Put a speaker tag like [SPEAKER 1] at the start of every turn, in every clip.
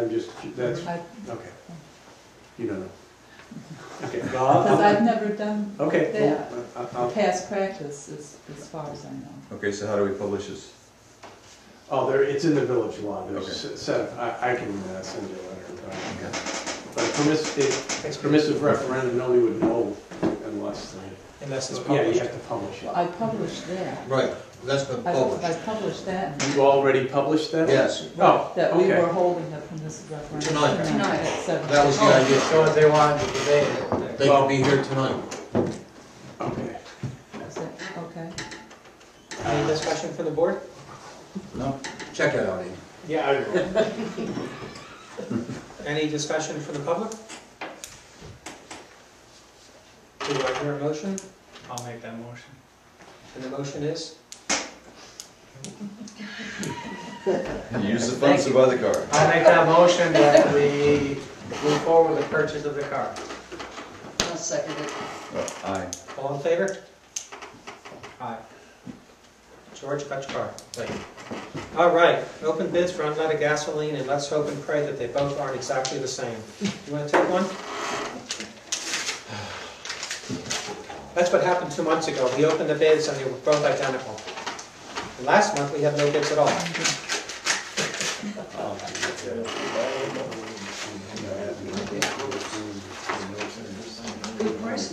[SPEAKER 1] I'm just, that's,
[SPEAKER 2] Because
[SPEAKER 1] okay. You don't know. Okay, well, I'll- I'll-
[SPEAKER 2] I've never done
[SPEAKER 1] okay,
[SPEAKER 2] Yeah.
[SPEAKER 1] well, I'll- I'll-
[SPEAKER 2] past practice as, as far as I know.
[SPEAKER 3] Okay, so how do we publish this?
[SPEAKER 1] oh, there, it's in the village law, there's
[SPEAKER 3] Okay.
[SPEAKER 1] a set, of- I, I can uh, send you a letter. about it. But a permiss, it- it's permissive referendum, nobody would know unless, they-
[SPEAKER 4] Unless it's
[SPEAKER 1] yeah, you
[SPEAKER 4] published.
[SPEAKER 1] have to publish
[SPEAKER 2] Well,
[SPEAKER 1] it.
[SPEAKER 2] I published that.
[SPEAKER 5] Right, that's been
[SPEAKER 2] I, I
[SPEAKER 5] published,
[SPEAKER 2] published that.
[SPEAKER 1] You already published that?
[SPEAKER 5] yes.
[SPEAKER 1] Oh,
[SPEAKER 2] That we
[SPEAKER 1] okay.
[SPEAKER 2] were holding a permissive referendum.
[SPEAKER 5] Tonight.
[SPEAKER 2] Tonight at seven.
[SPEAKER 5] That was the idea.
[SPEAKER 4] So if they wanted to debate it,
[SPEAKER 5] They could be here tonight.
[SPEAKER 1] Okay.
[SPEAKER 2] Is that- Okay.
[SPEAKER 4] any discussion for the board?
[SPEAKER 5] Check it out, Ian.
[SPEAKER 1] Yeah, I will.
[SPEAKER 4] Any discussion for the public? Do I hear a motion?
[SPEAKER 6] I'll make that motion.
[SPEAKER 4] And the motion is?
[SPEAKER 3] Use the funds to buy the car.
[SPEAKER 4] I'll make that motion that we move forward with the purchase of the car.
[SPEAKER 7] I'll second it.
[SPEAKER 3] Oh, Aye.
[SPEAKER 4] All in favor? Aye. George, cut your car. Thank you. All right, open bids for unleaded gasoline, and let's hope and pray that they both aren't exactly the same. You want to take one? That's what happened two months ago. We opened the bids and they were both identical. And Last month, we had no bids at all.
[SPEAKER 7] Good price,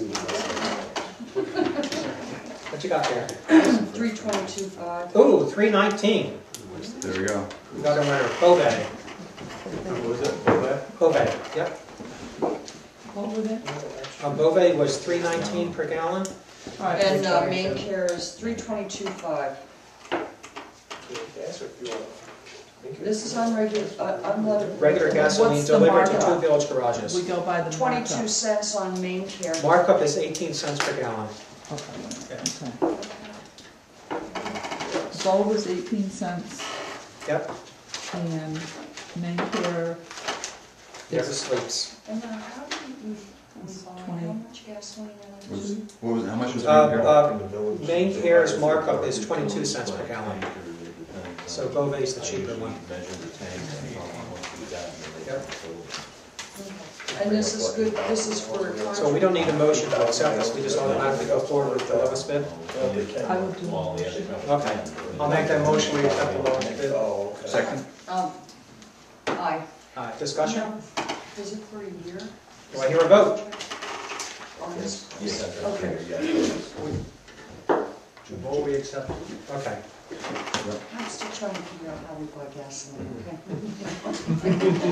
[SPEAKER 4] What you got there?
[SPEAKER 7] three twenty-two five.
[SPEAKER 4] Ooh, three nineteen.
[SPEAKER 3] There we go.
[SPEAKER 4] We got a winner, Bovee. Bovee, yep.
[SPEAKER 2] What were they?
[SPEAKER 4] Uh, Bovee was three nineteen per gallon.
[SPEAKER 7] And uh, main care is three twenty-two five. This is unregulated, unleaded.
[SPEAKER 4] Regular gasoline
[SPEAKER 2] What's the
[SPEAKER 4] delivered to two
[SPEAKER 2] markup?
[SPEAKER 4] village
[SPEAKER 2] We
[SPEAKER 4] garages.
[SPEAKER 2] go by the markup.
[SPEAKER 7] Twenty-two cents on main care.
[SPEAKER 4] Markup is eighteen cents per gallon.
[SPEAKER 2] Okay, okay. Bowl was eighteen cents
[SPEAKER 4] Yep,
[SPEAKER 2] and main care
[SPEAKER 4] never sleeps.
[SPEAKER 7] And then how do you, we buy, how much gasoline? are we
[SPEAKER 3] Was-
[SPEAKER 7] using?
[SPEAKER 3] What was, how much was
[SPEAKER 4] Uh,
[SPEAKER 3] it? here?
[SPEAKER 4] uh, main care's markup is twenty-two cents per gallon, so Bovee's the cheaper one. Yep.
[SPEAKER 7] And this is good, this is for.
[SPEAKER 4] Mm-hmm. So we don't need a motion to accept this, we just automatically go forward with the lowest bid.
[SPEAKER 2] I would do.
[SPEAKER 4] Okay, I'll make that motion, we accept the lowest bid.
[SPEAKER 3] Second?
[SPEAKER 7] Um, aye.
[SPEAKER 4] Uh, discussion,
[SPEAKER 7] Is it for a year?
[SPEAKER 4] do I hear a vote?
[SPEAKER 7] On this? Okay.
[SPEAKER 4] Vote we accept. Okay,
[SPEAKER 7] I'm still trying to figure out how we buy gasoline,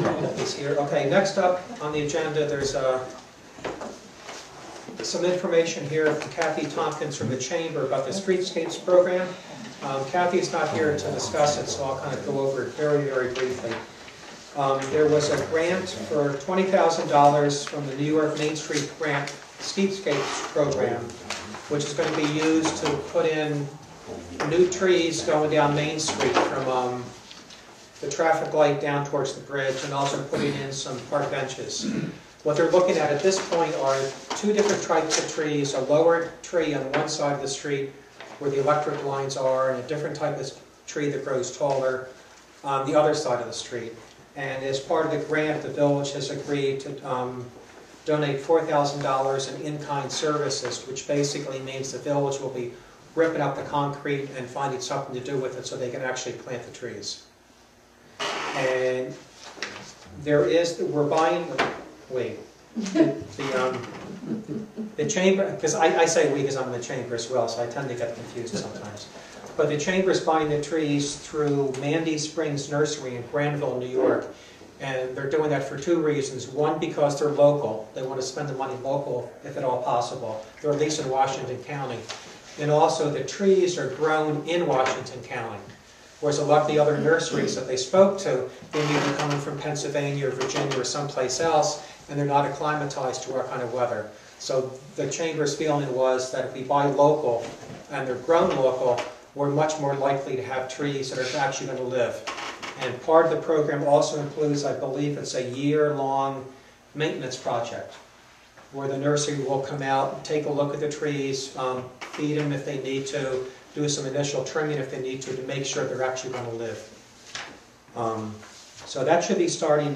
[SPEAKER 7] okay?
[SPEAKER 4] is here, okay, next up on the agenda, there's, uh, some information here from Kathy Tompkins from the Chamber about the Streetscapes Program. Um, Kathy's not here to discuss it, so I'll kind of go over it very, very briefly. Um, There was a grant for $20,000 from the New York Main Street Grant Streetscapes Program, which is going to be used to put in new trees going down Main Street from um, the traffic light down towards the bridge, and also putting in some park benches. What they're looking at at this point are two different types of trees, a lower tree on one side of the street where the electric lines are, and a different type of tree that grows taller on the other side of the street. And as part of the grant, the village has agreed to um, donate $4,000 in in-kind services, which basically means the village will be ripping up the concrete and finding something to do with it so they can actually plant the trees. And there is, we're buying, wait, the, um, the chamber, because I, I say we because I'm in the chamber as well, so I tend to get confused sometimes. But the chamber is buying the trees through Mandy Springs Nursery in Granville, New York. And they're doing that for two reasons. One, because they're local, they want to spend the money local if at all possible. They're at least in Washington County. And also, the trees are grown in Washington County. Whereas a lot of the other nurseries that they spoke to, they may be coming from Pennsylvania or Virginia or someplace else, and they're not acclimatized to our kind of weather. So the chamber's feeling was that if we buy local and they're grown local, we're much more likely to have trees that are actually going to live. And part of the program also includes, I believe, it's a year-long maintenance project where the nursery will come out, take a look at the trees, um, feed them if they need to, do some initial trimming if they need to, to make sure they're actually going to live. Um, So that should be starting